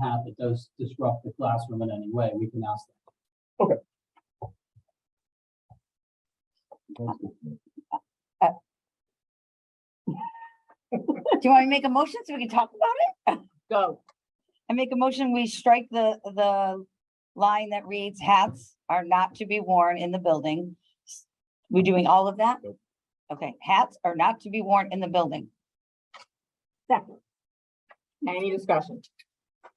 hat that does disrupt the classroom in any way, we can ask them. Do you want me to make a motion so we can talk about it? Go. I make a motion, we strike the, the line that reads hats are not to be worn in the building. We're doing all of that? Nope. Okay, hats are not to be worn in the building. Second. Any discussion?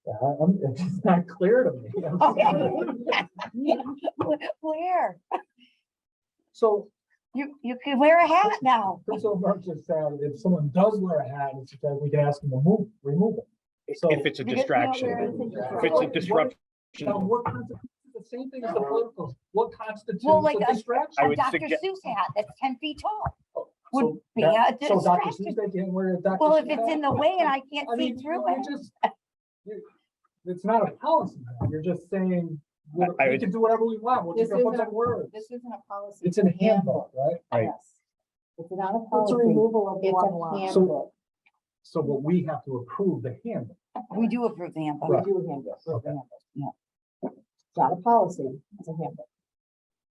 Yeah, I- I'm, it's just not clear to me. I'm sorry. Where? So, You, you can wear a hat now. so Mark just said, if someone does wear a hat, it's that we can ask them to move, remove it. So- If it's a Because- no, distraction, we're- if it's a disruption, Now, what constitutes, the same thing as the politicals, what constitutes Well, like uh, a a- distraction? I A would Dr. suggest- Seuss hat that's ten feet tall would So be that- a So Dr. distraction. Seuss, they can't wear a Dr. Well, if Seuss it's hat? in the way and I can't I see mean, through you're it, just- you- It's not a policy, now. you're just saying, we I we would- can do whatever we want, we're This just gonna put isn't a- some words. This isn't a policy. It's in handbook, right? Right. It's not a It's a policy. removal of It's one a line. handbook. So, so what we have to approve the handbook. we do approve the handbook. We do a handbook. It's Okay. not a policy. It's a handbook.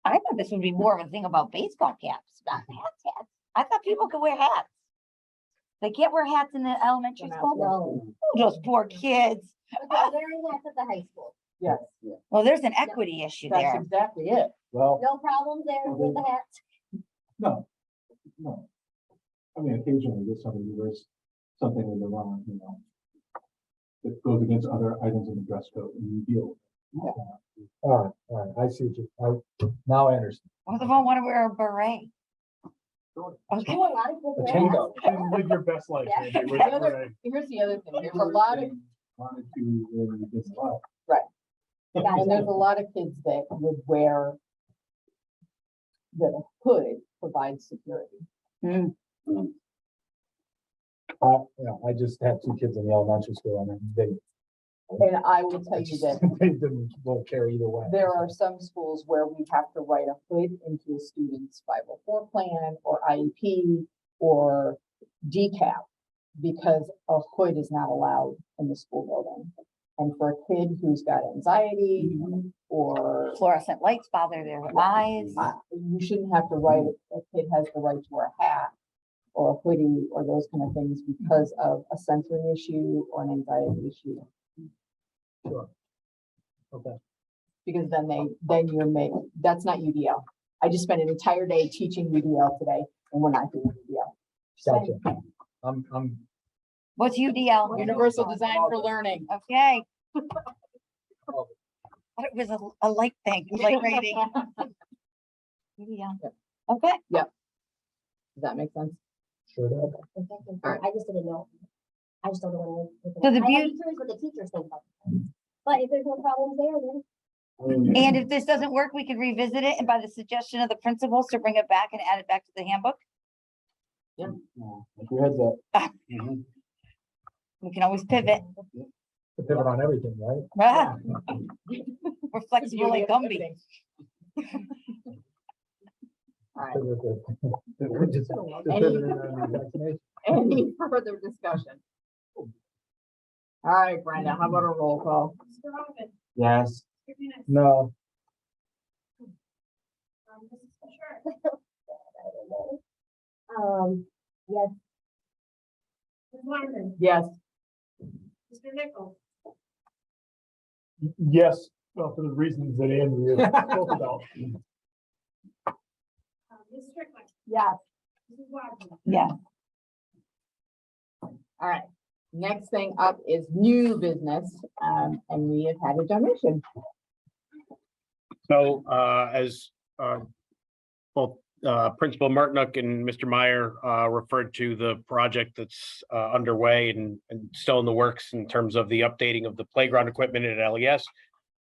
I thought this would be more of a thing about baseball caps, not hats, hats. I thought people could wear hats. They can't wear hats in the elementary They're not school? No. Oh, Those poor kids. But they're wearing hats at the high school. Yes, Well, there's an equity issue that's there. exactly it. Well. No problem there with the hats. No, no. I mean, occasionally there's somebody who wears something with the wrong, you know. That goes against other items in the dress code and you deal. with it. All right, all right, I see what you, I, now I understand. What if I want to wear a beret? Sure. Okay, Do a lot of people wear hats. Live your best life. Andy, with The other- Renee. Here's the other thing. There's a lot of, Wanted to, wear it against the law. Right. Yeah, and there's a lot of kids that would wear the hood provides security. Uh, yeah, I just had two kids in the elementary school and they. And I will Oh, tell you that They didn't, will care either way. There are some schools where we have to write a hood into a student's five oh four plan or IEP or decap because a hood is not allowed in the school building. And for a kid who's got anxiety or fluorescent lights bother their eyes. uh, you shouldn't have to write, a kid has the right to wear a hat or a hoodie or those kind of things because of a sensory issue or an anxiety issue. Okay. because then they, then you're make, that's not UDL. I just spent an entire day teaching UDL today and we're not doing UDL. Gotcha. I'm, I'm. What's UDL? Universal Design for Learning. Okay. Oh. But it was a, a light thing, light rating. UDL. Yep. Okay, Does that make sense? Sure that. I just didn't know. I just don't know what. So the I'm beaut- curious what the teachers think about it. But if there's no problems there, then and if this doesn't work, we could revisit it and by the suggestion of the principals to bring it back and add it back to the handbook. Who has that? We can always pivot. Depending on everything, right? Ah, We're flexible like Gumby. Alright, Just- Any- depending on the vaccination. any further discussion? Alright, Brenda, how about a roll call? Yes. No. um, yes, Yes, Yes, well, for the reasons that Andrea spoke about. yes. Yeah. Alright, next thing up is new business, um, and we have had a donation. So uh, as uh, both uh, Principal Martinook and Mr. Meyer uh, referred to the project that's uh, underway and and still in the works in terms of the updating of the playground equipment at LES.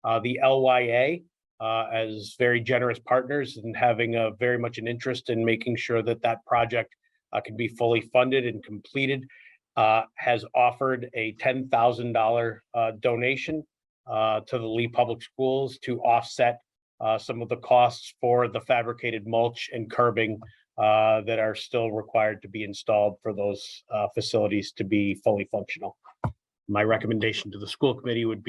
uh, The LYA uh, as very generous partners and having a very much an interest in making sure that that project uh, can be fully funded and completed uh, has offered a $10,000 uh, donation uh, to the Lee Public Schools to offset uh, some of the costs for the fabricated mulch and curbing uh, that are still required to be installed for those uh, facilities to be fully functional. My recommendation to the school committee would be.